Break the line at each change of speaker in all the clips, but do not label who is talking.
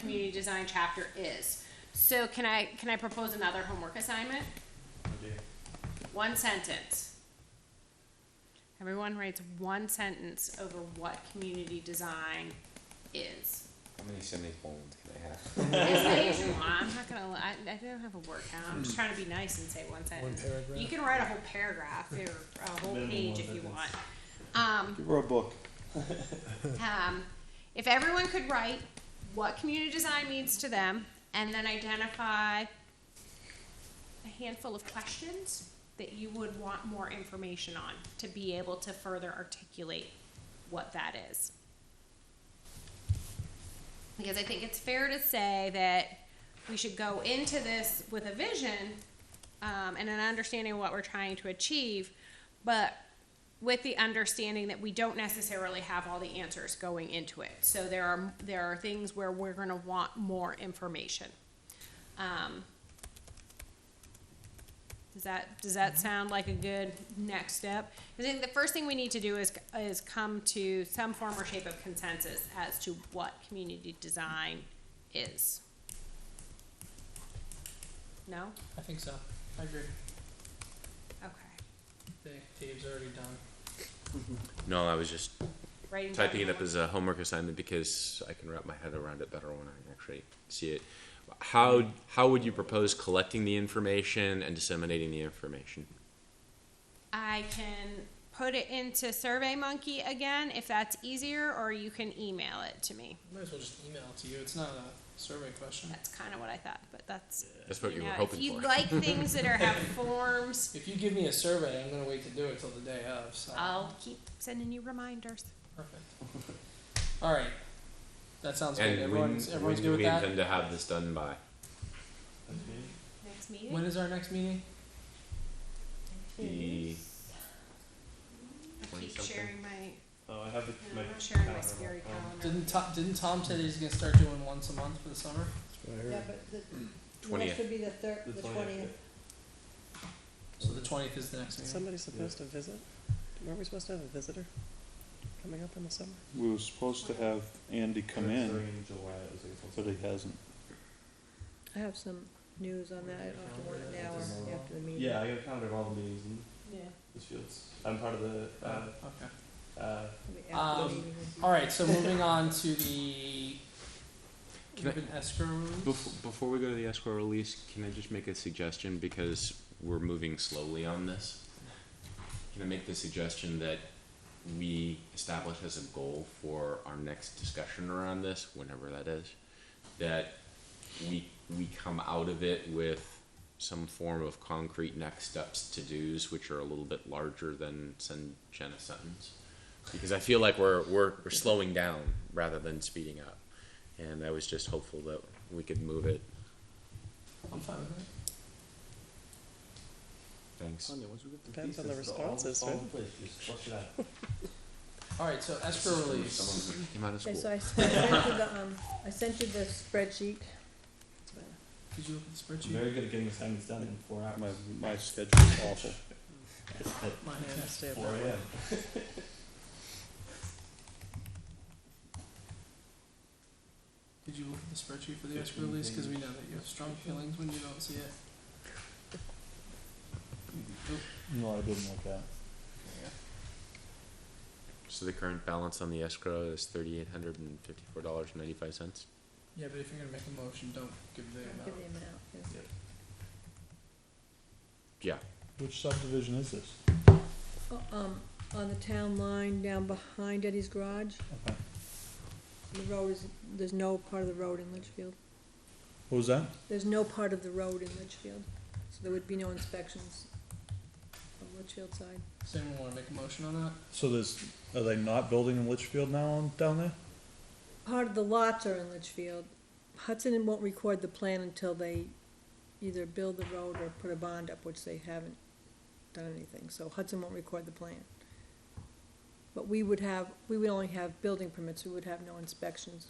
community design chapter is. So can I, can I propose another homework assignment? One sentence. Everyone writes one sentence over what community design is.
How many semicolons can I have?
As many as you want. I'm not gonna, li- I, I don't have a word count. I'm just trying to be nice and say one sentence.
paragraph?
You can write a whole paragraph or a whole
Minimum
page
one
if you
sentence.
want. Um,
Give her a book.
um, if everyone could write what community design means to them and then identify a handful of questions that you would want more information on to be able to further articulate what that is. Because I think it's fair to say that we should go into this with a vision um, and an understanding of what we're trying to achieve, but with the understanding that we don't necessarily have all the answers going into it. So there are there are things where we're going to want more information. Um, does that does that sound like a good next step? I think the first thing we need to do is is come to some form or shape of consensus as to what community design is. No?
I think so. I agree.
Okay.
I think Dave's already done.
No, I was just
Writing down
typing it up
homework.
as a homework assignment because I can wrap my head around it better when I actually see it. How how would you propose collecting the information and disseminating the information?
I can put it into SurveyMonkey again if that's easier, or you can email it to me.
Might as well just email it to you. It's not a survey question.
That's kind of what I thought, but that's.
That's what you,
know,
were hoping
if you
for.
like things that are have forms,
If you give me a survey, I'm gonna wait to do it till the day of, so.
I'll keep sending you reminders.
Perfect. Alright. That sounds
and
good.
when,
Everyone's, everyone's
when
good
do
with
we
that?
intend to have this done by?
Next meeting.
When is our next meeting?
The
I keep
20-something?
sharing my.
Oh, I have the,
no,
my.
I'm not sharing my
calendar.
scary
Oh.
calendar.
Didn't Tom, didn't Tom say that he's gonna start doing once a month for the summer?
Yeah, but the, the
20th.
next would be the third,
The
the
20th,
twentieth.
So the twentieth is the next meeting.
Somebody's supposed to visit? Weren't we supposed to have a visitor coming up in the summer?
We were supposed to have Andy come
It was
in,
during July, it was like
but
something.
he hasn't.
I have some news on that, I don't have to worry now or after the meeting.
Yeah, I got a calendar of all the meetings in
Yeah.
the fields. I'm part of the,
Oh,
uh,
okay.
uh,
It'll be after the
Um,
meeting.
Alright, so moving on to the
Can I-
open escrows.
Before, before we go to the escrow release, can I just make a suggestion because we're moving slowly on this? Can I make the suggestion that we establish as a goal for our next discussion around this, whenever that is, that we we come out of it with some form of concrete next steps to dos, which are a little bit larger than send Jen a sentence, because I feel like we're we're we're slowing down rather than speeding up, and I was just hopeful that we could move it.
I'm fine with it.
Thanks.
Depends on the
pieces, all-
responses,
all
right?
the place, just flush it out.
Alright, so escrow release.
Someone who came out of
Okay, so
school.
I s- I sent you the, um, I sent you the spreadsheet.
Did you look at the
I'm
spreadsheet?
very good at getting assignments done in four
My,
hours.
my schedule's awful.
Mine is.
Gotta stay up
Four
that late.
AM.
Did you look at the spreadsheet for the escrow release? Because we know that you have strong feelings when you don't see it.
No, I didn't like that.
So the current balance on the escrow is thirty-eight hundred and fifty-four dollars and ninety-five cents.
Yeah, but if you're gonna make a motion, don't give the
I'll
amount.
give the amount, yes.
Which subdivision is this?
O- Um, on the town line down behind Eddie's Garage,
Okay.
the road is, there's no part of the road in Litchfield.
What was that?
There's no part of the road in Litchfield, so there would be no inspections on Litchfield side.
Does anyone wanna make a motion on that?
So there's, are they not building in Litchfield now on, down there?
Part of the lots are in Litchfield. Hudson won't record the plan until they either build the road or put a bond up, which they haven't done anything, so Hudson won't record the plan. But we would have, we would only have building permits, we would have no inspections.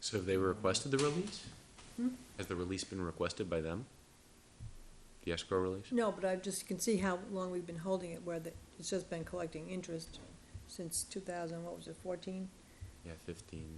So have they requested the release?
Hmm?
Has the release been requested by them? The escrow release?
No, but I just can see how long we've been holding it, where the, it's just been collecting interest since two thousand, what was it, fourteen?
Yeah, fifteen.